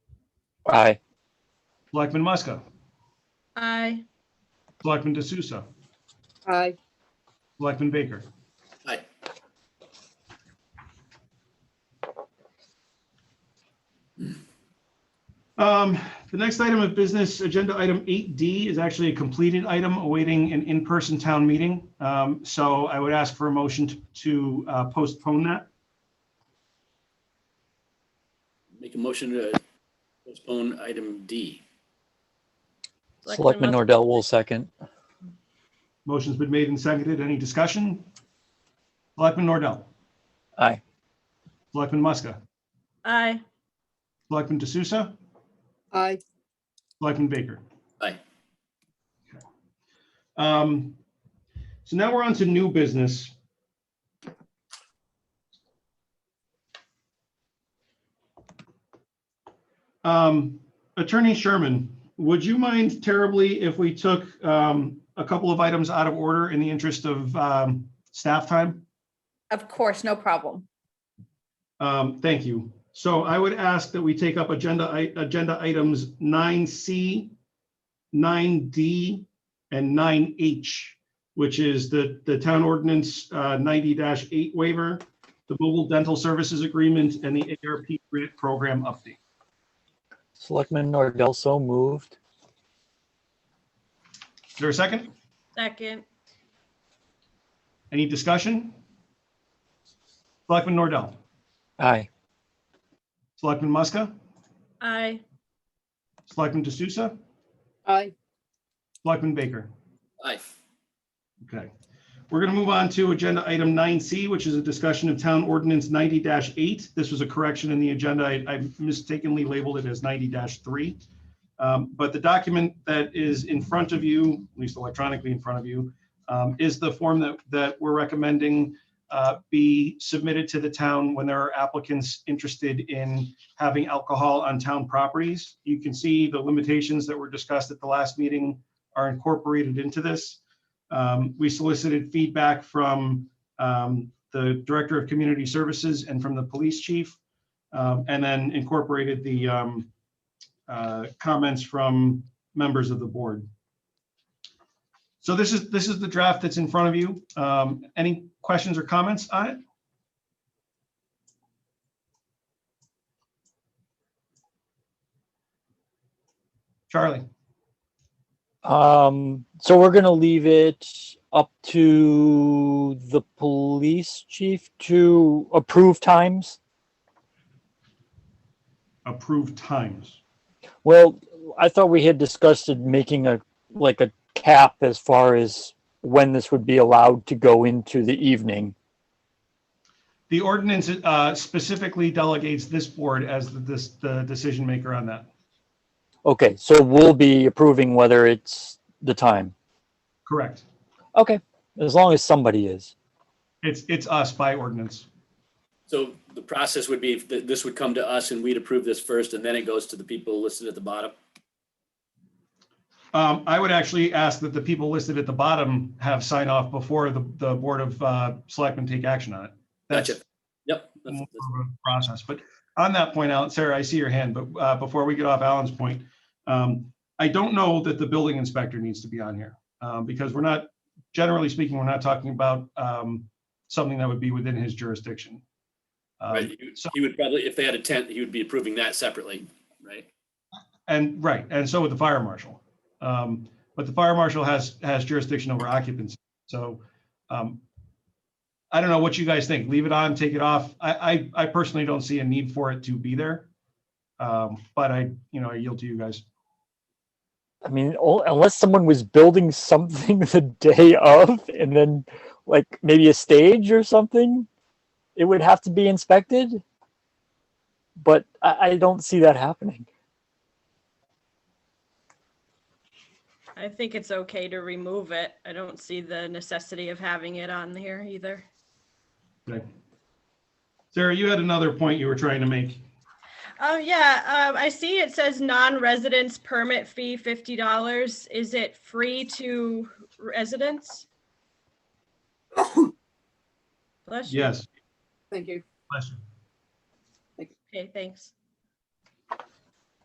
Aye. Selectman Muska? Aye. Selectman De Souza? Aye. Selectman Baker? Aye. Um, The next item of business, agenda item 8D, is actually a completed item awaiting an in-person town meeting. Um, So I would ask for a motion to- to uh, postpone that. Make a motion to postpone item D. Selectman Selectman Nordell will second. Motion's been made and seconded. Any discussion? Selectman Nordell? Aye. Selectman Muska? Aye. Selectman De Souza? Aye. Selectman Baker? Aye. Okay. Um, So now we're on to new business. Um, Attorney Sherman, would you mind terribly if we took um, a couple of items out of order in the interest of um, staff time? Of course, no problem. Um, Thank you. So I would ask that we take up agenda, i- agenda items 9C, 9D, and 9H, which is the, the town ordinance uh, 90-8 waiver, the mobile dental services agreement, and the ARP grant program update. Selectman Nordell so moved. Is there a second? Second. Any discussion? Selectman Nordell, Aye. Selectman Muska, Aye. Selectman De Souza, Aye. Selectman Baker. Aye. Okay. We're going to move on to agenda item nine C, which is a discussion of town ordinance ninety eight. This was a correction in the agenda. I I mistakenly labeled it as ninety three. Um, But the document that is in front of you, at least electronically in front of you, um, is the form that, that we're recommending uh, be submitted to the town when there are applicants interested in having alcohol on town properties. You can see the limitations that were discussed at the last meeting are incorporated into this. Um, We solicited feedback from um, the Director of Community Services and from the Police Chief, um, and then incorporated the um, uh, comments from members of the board. So this is, this is the draft that's in front of you. Um, Any questions or comments on it? Charlie? Um, so we're gonna leave it up to the police chief to approve times. Approved times. Well, I thought we had discussed it making a, like a cap as far as when this would be allowed to go into the evening. The ordinance uh, specifically delegates this board as the, this, the decision maker on that. Okay, so we'll be approving whether it's the time. Correct. Okay, as long as somebody is. It's, it's us by ordinance. So the process would be, that this would come to us and we'd approve this first and then it goes to the people listed at the bottom. Um, I would actually ask that the people listed at the bottom have sign off before the, the Board of uh, Selectmen take action on it. That's Gotcha. Yep. that's- more that's- of a process, but on that point, Alan, Sarah, I see your hand, but uh, before we get off Alan's point, um, I don't know that the building inspector needs to be on here, um, because we're not, generally speaking, we're not talking about um, something that would be within his jurisdiction. Um, Right. He would- so- He would probably, if they had a tent, he would be approving that separately, right? And, right, and so would the fire marshal. Um, But the fire marshal has, has jurisdiction over occupancy, so um, I don't know what you guys think, leave it on, take it off. I, I, I personally don't see a need for it to be there. Um, But I, you know, I yield to you guys. I mean, all, unless someone was building something the day of and then like maybe a stage or something, it would have to be inspected. But I, I don't see that happening. I think it's okay to remove it. I don't see the necessity of having it on here either. Okay. Sarah, you had another point you were trying to make. Oh, yeah, um, I see it says non-residents permit fee fifty dollars. Is it free to residents? Bless you. Yes. Thank you. Question. Okay, thanks.